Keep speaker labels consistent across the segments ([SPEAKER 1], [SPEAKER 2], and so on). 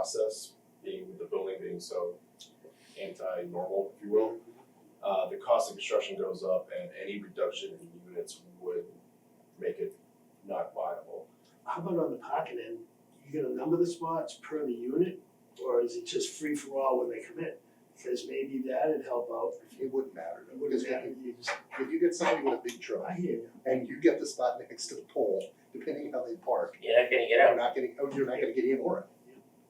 [SPEAKER 1] process, being with the building being so anti-normal, if you will. Uh, the cost of construction goes up and any reduction in units would make it not viable.
[SPEAKER 2] How about on the pocket end, you gonna number the spots per the unit, or is it just free for all when they come in? Because maybe that'd help out,
[SPEAKER 3] It wouldn't matter,
[SPEAKER 2] it wouldn't
[SPEAKER 3] because if
[SPEAKER 2] matter,
[SPEAKER 3] you,
[SPEAKER 2] you just,
[SPEAKER 3] if you get somebody with a big truck
[SPEAKER 2] I hear you.
[SPEAKER 3] and you get the spot next to the pole, depending how they park,
[SPEAKER 4] You're not gonna get
[SPEAKER 3] you're
[SPEAKER 4] out.
[SPEAKER 3] not getting, oh, you're not gonna get in or out.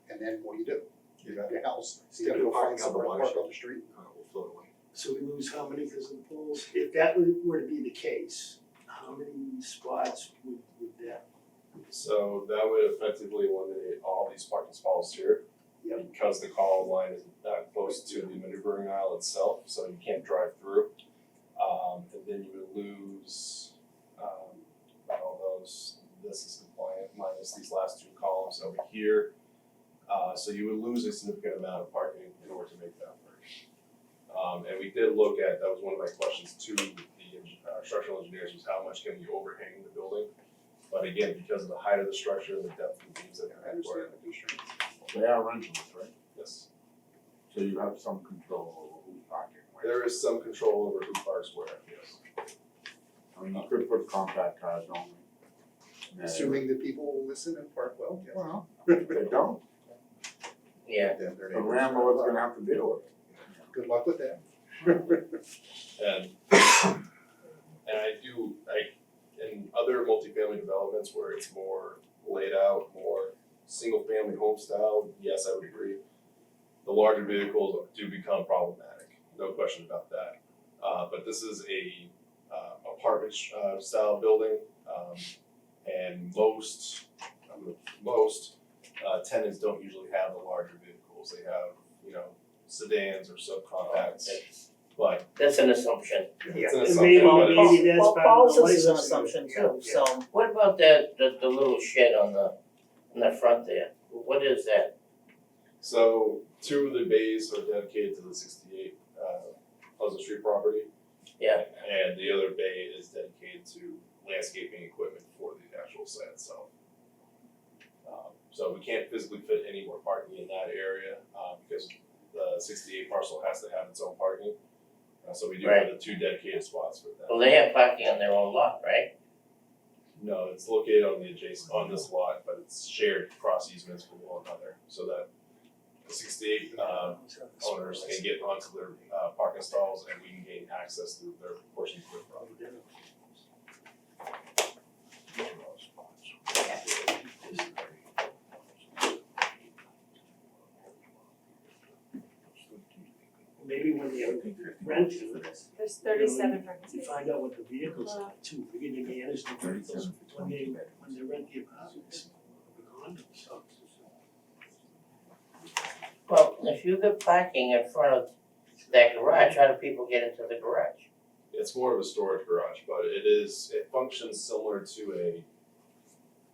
[SPEAKER 3] And then what do you do? You're at your house, you gotta go find somewhere to park on the street.
[SPEAKER 5] will float away.
[SPEAKER 2] So we lose how many because of the polls? If that were- were to be the case, how many spots would, would that?
[SPEAKER 1] So that would effectively eliminate all these parking stalls here.
[SPEAKER 2] Yep.
[SPEAKER 1] Because the call line is not close to the maneuvering aisle itself, so you can't drive through. Um, and then you would lose, um, about all those, this is compliant minus these last two columns over here. Uh, so you would lose a significant amount of parking in order to make that work. Um, and we did look at, that was one of my questions to the, eng- uh, structural engineers, was how much can you overhang the building? But again, because of the height of the structure and the depth of the beams that are required,
[SPEAKER 3] the constraints.
[SPEAKER 5] They are rentals, right?
[SPEAKER 1] yes.
[SPEAKER 5] So you have some control over who's parking where.
[SPEAKER 1] There is some control over who parks where, yes.
[SPEAKER 5] I mean, you could put compact cars only. And
[SPEAKER 3] Assuming that people will listen and park well, yeah.
[SPEAKER 5] Well, if they don't,
[SPEAKER 4] Yeah,
[SPEAKER 3] Then their
[SPEAKER 5] the
[SPEAKER 3] neighbors
[SPEAKER 5] landlord's
[SPEAKER 3] are-
[SPEAKER 5] gonna have to deal with it.
[SPEAKER 3] Good luck with that.
[SPEAKER 1] And and I do like in other multifamily developments where it's more laid out, more single family home style, yes, I would agree. The larger vehicles do become problematic, no question about that. Uh but this is a uh apartment sh- uh style building. Um and most, um, most uh tenants don't usually have the larger vehicles, they have, you know, sedans or subcompacts,
[SPEAKER 4] that's,
[SPEAKER 1] but
[SPEAKER 4] that's an assumption.
[SPEAKER 1] it's an
[SPEAKER 2] And
[SPEAKER 1] assumption,
[SPEAKER 2] maybe-
[SPEAKER 1] but it's-
[SPEAKER 2] maybe that's
[SPEAKER 6] Well,
[SPEAKER 2] part of the
[SPEAKER 6] Paul's is an
[SPEAKER 2] license
[SPEAKER 6] assumption
[SPEAKER 2] agreement.
[SPEAKER 6] too, so
[SPEAKER 4] What about that, the, the little shed on the, on the front there? What is that?
[SPEAKER 1] So two of the bays are dedicated to the sixty-eight uh Pleasant Street property.
[SPEAKER 4] Yeah.
[SPEAKER 1] And the other bay is dedicated to landscaping equipment for the actual site itself. Um so we can't physically fit any more parking in that area uh because the sixty-eight parcel has to have its own parking. Uh so we do have the two dedicated spots for that.
[SPEAKER 4] Well, they have parking on their own lot, right?
[SPEAKER 1] No, it's located on the adjacent, on this lot, but it's shared cross easements with one another, so that the sixty-eight uh owners can get onto their uh parking stalls and we can gain access to their portions of the property.
[SPEAKER 2] Maybe when they rent it,
[SPEAKER 6] there's thirty-seven parking
[SPEAKER 2] you
[SPEAKER 6] spaces.
[SPEAKER 2] find out what the vehicles are too, we can manage the vehicles when they, when they rent the apartments. the condos.
[SPEAKER 4] Well, if you get parking in front of that garage, how do people get into the garage?
[SPEAKER 1] It's more of a storage garage, but it is, it functions similar to a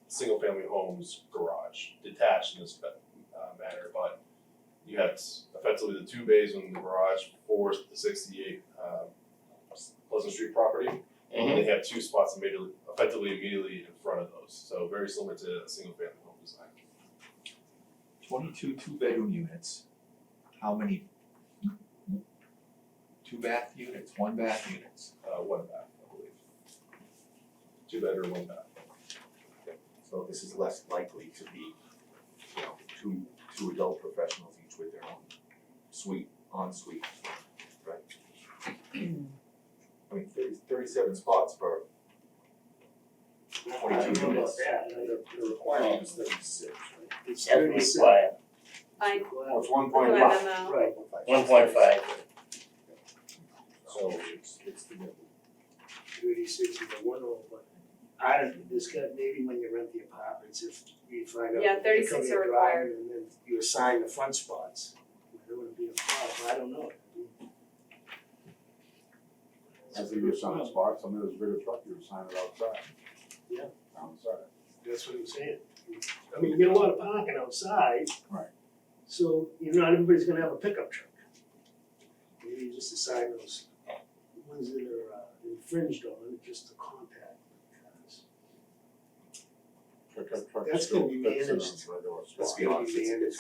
[SPEAKER 1] single family homes garage, detached in this fa- uh manner, but you have effectively the two bays in the garage for the sixty-eight um Pleasant Street property.
[SPEAKER 7] Mm-hmm.
[SPEAKER 1] And they have two spots immediately, effectively immediately in front of those, so very similar to a single family home design.
[SPEAKER 7] twenty-two two-bedroom units, how many? Two bath units, one bath units,
[SPEAKER 1] Uh, one bath, I believe. Two bedroom, one bath.
[SPEAKER 7] so this is less likely to be, you know, two, two adult professionals each with their own suite, ensuite, right? I mean, thirty, thirty-seven spots per
[SPEAKER 2] I don't
[SPEAKER 7] twenty-two
[SPEAKER 2] know about
[SPEAKER 7] units.
[SPEAKER 2] that, I
[SPEAKER 3] The
[SPEAKER 2] don't-
[SPEAKER 3] the requirement is thirty-six, right?
[SPEAKER 2] it's
[SPEAKER 4] That's
[SPEAKER 2] thirty seven.
[SPEAKER 4] required,
[SPEAKER 6] I uh,
[SPEAKER 5] Well, it's one
[SPEAKER 6] put
[SPEAKER 5] point
[SPEAKER 6] a
[SPEAKER 5] five.
[SPEAKER 6] memo,
[SPEAKER 2] Right,
[SPEAKER 4] one point five.
[SPEAKER 3] So it's, it's the middle.
[SPEAKER 2] thirty six is a one oh, but I don't, this got, maybe when you rent the apartments, if you find out.
[SPEAKER 6] Yeah,
[SPEAKER 2] that they come
[SPEAKER 6] 36
[SPEAKER 2] to your
[SPEAKER 6] are
[SPEAKER 2] drive
[SPEAKER 6] required.
[SPEAKER 2] And then you assign the front spots, there wouldn't be a problem, I don't know.
[SPEAKER 5] If you assign a spot, some of those bigger trucks, you assign it outside.
[SPEAKER 2] Yeah.
[SPEAKER 5] Outside.
[SPEAKER 2] That's what I'm saying. I mean, you get a lot of parking outside.
[SPEAKER 5] Right.
[SPEAKER 2] So, you know, not everybody's gonna have a pickup truck. Maybe you just assign those ones that are uh, infringed on, just the compact cars.
[SPEAKER 5] Pickup trucks
[SPEAKER 2] That's gonna
[SPEAKER 5] still
[SPEAKER 2] be
[SPEAKER 5] fits in
[SPEAKER 2] managed.
[SPEAKER 5] those regular spots.
[SPEAKER 2] Let's be honest, it's- it's